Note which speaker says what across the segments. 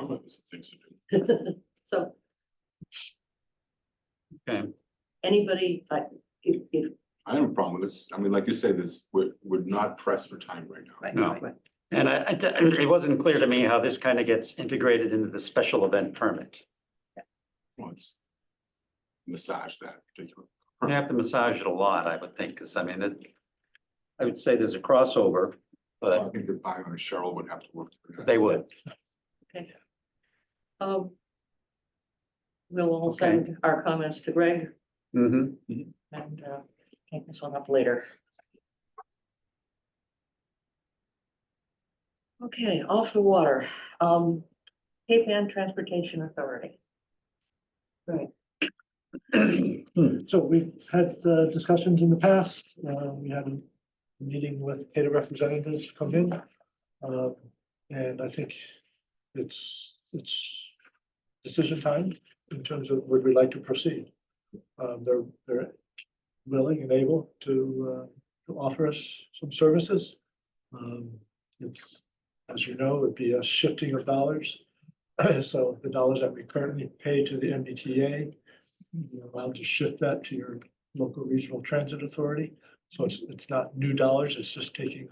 Speaker 1: always things to do.
Speaker 2: So.
Speaker 3: Okay.
Speaker 2: Anybody, uh, if, if,
Speaker 1: I have a problem with this. I mean, like you said, this, we're, we're not pressed for time right now.
Speaker 2: right,
Speaker 3: No.
Speaker 2: right, right.
Speaker 3: And I, I- it wasn't clear to me how this kind of gets integrated into the special event permit.
Speaker 1: Let's Massage that particular.
Speaker 3: We're gonna have to massage it a lot, I would think, because I mean, it, I would say there's a crossover,
Speaker 1: I
Speaker 3: but
Speaker 1: think that Byron and Cheryl would have to work. through that.
Speaker 3: they would.
Speaker 2: um. We'll all send our comments to Greg
Speaker 3: hmm
Speaker 2: and, uh, take this one up later. Okay, off the water, um, Cape Ann Transportation Authority.
Speaker 4: So we've had uh, discussions in the past. Uh, We had a meeting with data representatives come in. Uh, And I think it's, it's decision time in terms of would we like to proceed. Um, They're, they're willing and able to, uh, to offer us some services. Um, It's, as you know, it'd be a shifting of dollars. So the dollars that we currently pay to the MBTA you're allowed to shift that to your local regional transit authority. So it's, it's not new dollars, it's just taking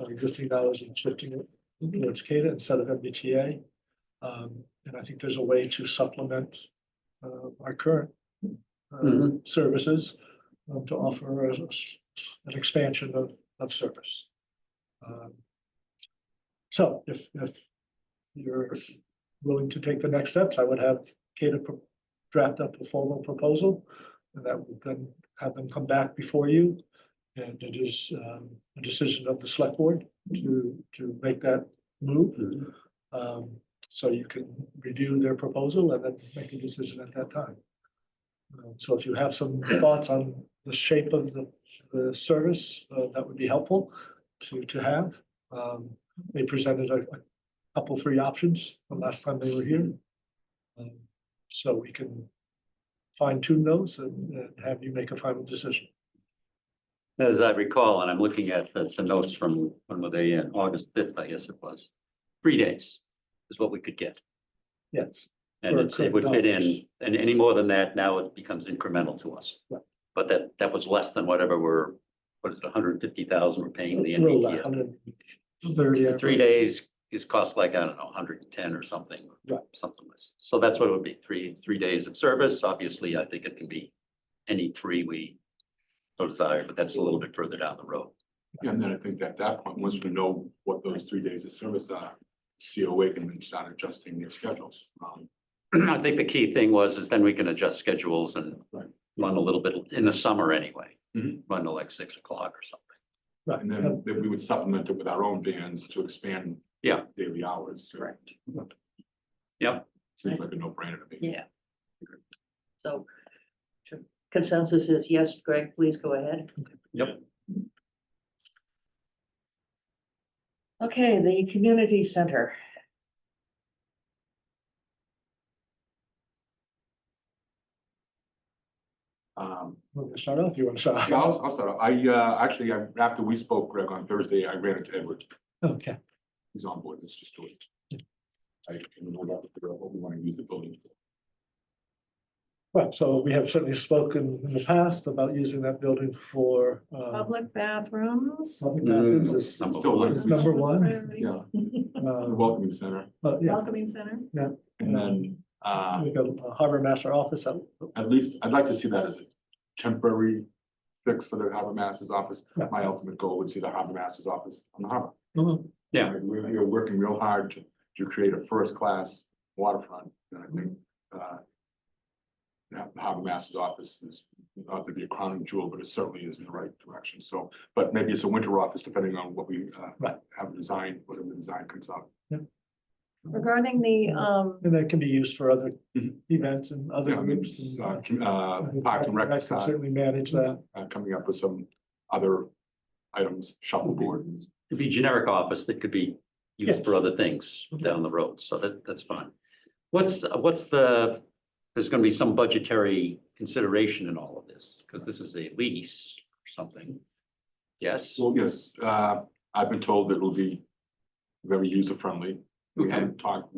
Speaker 4: uh, existing dollars and shifting it
Speaker 2: Mhm.
Speaker 4: towards CADA instead of MBTA. Um, and I think there's a way to supplement, uh, our current uh,
Speaker 3: Mhm.
Speaker 4: services um, to offer us an expansion of, of service. Um, So if, if you're willing to take the next steps, I would have CADA pro- draft up a formal proposal. And that would then have them come back before you. And it is um, a decision of the select board to, to make that move. Um, So you can review their proposal and then make a decision at that time. Um, So if you have some thoughts on the shape of the, the service, uh, that would be helpful to, to have. Um, They presented a a couple, three options the last time they were here. Um, so we can fine tune those and, and have you make a final decision.
Speaker 3: As I recall, and I'm looking at the, the notes from, when were they in, August fifth, I guess it was. Three days is what we could get.
Speaker 4: Yes.
Speaker 3: And
Speaker 4: For
Speaker 3: it's- it
Speaker 4: current
Speaker 3: would fit
Speaker 4: dollars.
Speaker 3: in, and any more than that, now it becomes incremental to us.
Speaker 4: Right.
Speaker 3: But that, that was less than whatever we're, what is it, hundred and fifty thousand we're paying the
Speaker 4: uh,
Speaker 3: MBTA. The
Speaker 4: MBTA.
Speaker 3: Three days is cost like, I don't know, hundred and ten or something,
Speaker 4: Right.
Speaker 3: something less. So that's what it would be, three, three days of service. Obviously, I think it can be any three we so desire, but that's a little bit further down the road.
Speaker 1: Yeah, And then I think at that point, once we know what those three days of service are, COA can then start adjusting their schedules. Um,
Speaker 3: I think the key thing was is then we can adjust schedules and
Speaker 1: Right.
Speaker 3: run a little bit in the summer anyway.
Speaker 1: Mhm.
Speaker 3: Run to like six o'clock or something.
Speaker 4: Right,
Speaker 1: And then then we would supplement it with our own bands to expand.
Speaker 3: Yeah.
Speaker 1: Daily hours. So
Speaker 2: Correct.
Speaker 3: Yep.
Speaker 1: Seems like a no brainer to me.
Speaker 2: Yeah. So to- consensus is yes, Greg, please go ahead.
Speaker 3: Yep.
Speaker 2: Okay, the community center.
Speaker 1: Um,
Speaker 4: Want me to start off? You want to start?
Speaker 1: Yeah,
Speaker 4: off?
Speaker 1: I'll, I'll start. off. I, uh, actually, I- after we spoke, Greg, on Thursday, I ran into Edward.
Speaker 4: Okay,
Speaker 1: He's on board. Let's just do it. I can no doubt figure out what we want to use the building for.
Speaker 4: right, so we have certainly spoken in the past about using that building for, uh,
Speaker 5: Public bathrooms.
Speaker 4: public bathrooms is
Speaker 3: Mm-hmm. Number
Speaker 1: Still
Speaker 3: one.
Speaker 4: is number one.
Speaker 5: priority,
Speaker 1: Yeah, the
Speaker 4: Uh,
Speaker 1: welcoming center.
Speaker 4: But yeah,
Speaker 5: Welcoming center.
Speaker 1: And then, uh,
Speaker 4: we got a harbor master office, uh,
Speaker 1: at least, I'd like to see that as a temporary fix for the harbor master's office.
Speaker 4: Yeah.
Speaker 1: My ultimate goal would see the harbor master's office on the harbor.
Speaker 4: Mhm.
Speaker 3: Yeah.
Speaker 1: Like, We're, you're working real hard to, to create a first-class waterfront, and I think, uh, the the harbor master's office is, not to be a crowning jewel, but it certainly is in the right direction, so, but maybe it's a winter office, depending on what we, uh,
Speaker 4: Right.
Speaker 1: have designed, whatever the design comes out.
Speaker 5: Regarding the, um,
Speaker 4: and that can be used for other
Speaker 3: Mm-hmm.
Speaker 1: Mhm.
Speaker 4: events and other
Speaker 1: Yeah, I mean,
Speaker 4: groups. and-
Speaker 1: uh, com- uh,
Speaker 4: I think
Speaker 1: park and
Speaker 4: that-
Speaker 1: rec,
Speaker 4: that can
Speaker 1: side,
Speaker 4: Certainly manage that.
Speaker 1: uh, coming up with some other items, shuffleboard.
Speaker 3: It'd be generic office that could be used
Speaker 4: Yes.
Speaker 3: for other things down the road, so that, that's fine. What's, uh, what's the, there's gonna be some budgetary consideration in all of this, because this is a lease or something. Yes,
Speaker 1: Well, yes, uh, I've been told that it'll be very user friendly. We
Speaker 3: Okay.
Speaker 1: haven't talked,